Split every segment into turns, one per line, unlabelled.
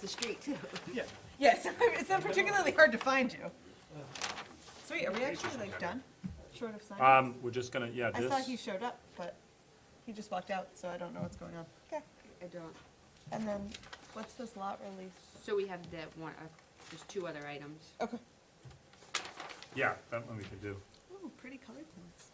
the street too.
Yeah.
Yes, it's not particularly hard to find you. Sweet, are we actually like done? Short of signing?
Um, we're just gonna, yeah,
I
this.
saw he showed up, but he just walked out, so I don't know what's going on. Okay,
I don't,
and then what's this lot release?
so we have that one, uh, there's two other items.
Okay.
Yeah, that one we could do.
Ooh, pretty colored plants.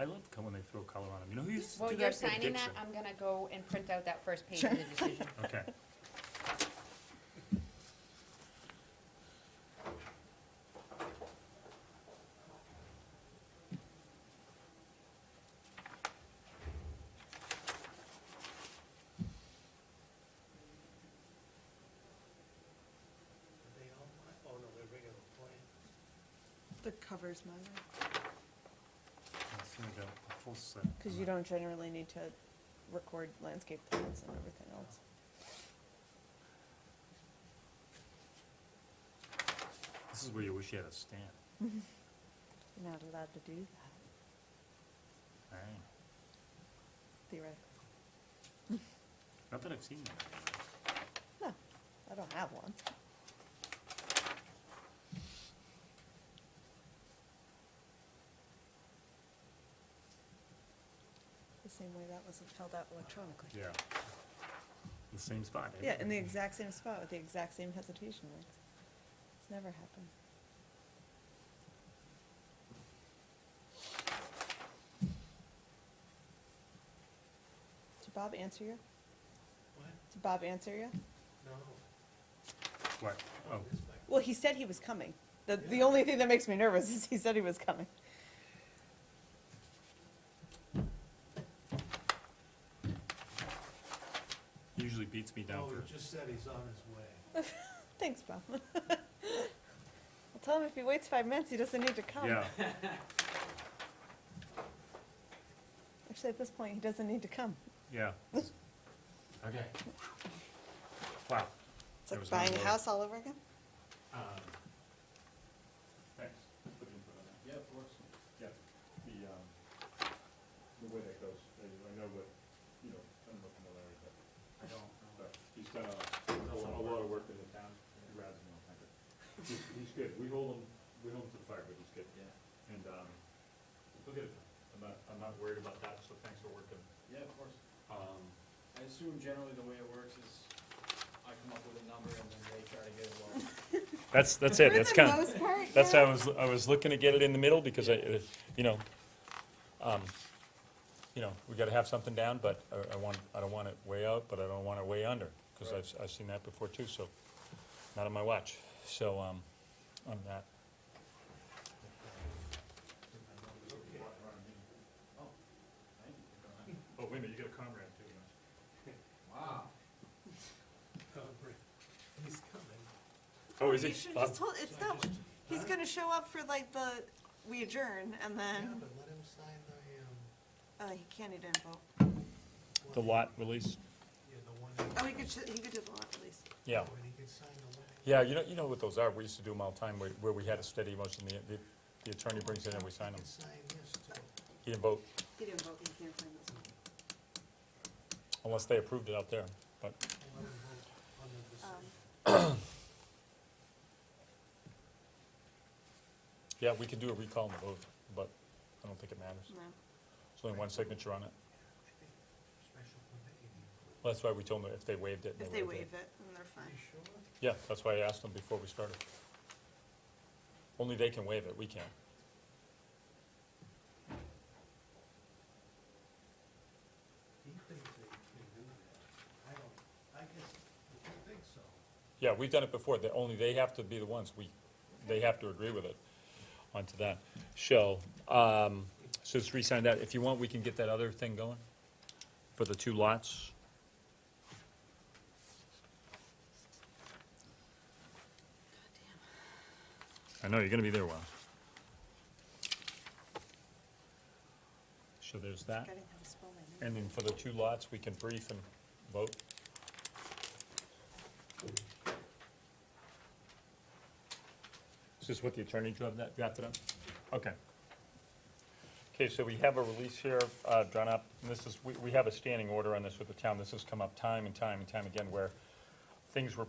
I love co- when they throw color on them. You know who used to
While
do
you're
that? Dick
signing that,
Dixon.
I'm gonna go and print out that first page of the decision.
Okay.
They all, want- oh no, they're regular plans.
The cover's mine,
Let's see, we got a full set.
because you don't generally need to record landscape plans and everything else.
This is where you wish you had a stand.
You're not allowed to do that
All right.
theoretically.
Not that I've seen that.
No, I don't have one. The same way that wasn't filled out electronically.
Yeah. The same spot. eh?
Yeah, in the
everything.
exact same spot with the exact same hesitation marks. It's never happened. Did Bob answer you?
What?
Did Bob answer you?
No.
What? Oh,
This way.
Well, he said he was coming. The, the only thing that makes me nervous is he said he was coming.
he usually beats me
Oh,
down
No,
for.
he just said he's on his way.
Thanks, Bob. I'll tell him if he waits five minutes, he doesn't need to come.
Yeah.
Actually, at this point, he doesn't need to come.
Yeah.
Okay,
Wow.
It's
There
like
was no
buying
road.
a house all over again.
um,
Thanks.
yeah, of course.
Yeah, the, um, the way that goes, I, I know what, you know, I don't know if you know Larry, but,
I don't,
but he's done a, a lot- a lot of work in the town, he rides him on it. He's, he's good, we hold him, we hold him to the fire, but he's good,
yeah,
and, um, he'll get it done. I'm not, I'm not worried about that, so thanks for working.
yeah, of course.
Um,
I assume generally the way it works is I come up with a number and then they try to get it all.
that's, that's it, that's
For the
kinda,
most part,
That's how
yeah.
I was, I was looking to get it in the middle, because I, it- you know, um, you know, we gotta have something down, but I, I want, I don't want it way out, but I don't want it way under, because
Right.
I've, I've seen that before too, so, not on my watch, so, um, on that. Oh, wait a minute, you got a comrade too,
Wow.
He's coming.
Oh, is
You
he?
should
Bob?
just hold- it's
So I
not,
just-
he's gonna show up for like the, we adjourn, and
Yeah,
then,
but let him sign the, um.
uh, he can't, he didn't vote.
The
one-
lot release,
Yeah, the one, that-
Oh, he could, sh- he could do the lot release.
yeah.
and he can sign the one.
Yeah, you know, you know what those are, we used to do them all the time, where, where we had a steady motion, the, the- the attorney brings it in and we sign
He
them.
can sign this too.
He didn't vote,
He didn't vote, he can't sign this one.
unless they approved it out there, but,
and let him vote on the decision.
yeah, we could do a recall and vote, but I don't think it matters.
No.
There's only one signature on it.
I think Special permit you need.
Well, That's why we told them if they waived it.
If they waive it, then they're
Are
fine.
you sure?
Yeah, that's why I asked them before we started. Only they can waive it, we can't.
He thinks they can do that. I don't, I guess, I think so.
Yeah, we've done it before, that only they have to be the ones, we, they have to agree with it. Onto that. So, um, so just re-sign that. If you want, we can get that other thing going for the two lots. I know, you're gonna be there a while. So there's that.
Forgetting how to spell my name.
And then for the two lots, we can brief and vote. Is this what the attorney drew up that, drafted up? Okay. Okay, so we have a release here, uh, drawn up, and this is, we, we have a standing order on this with the town. This has come up time and time and time again where things were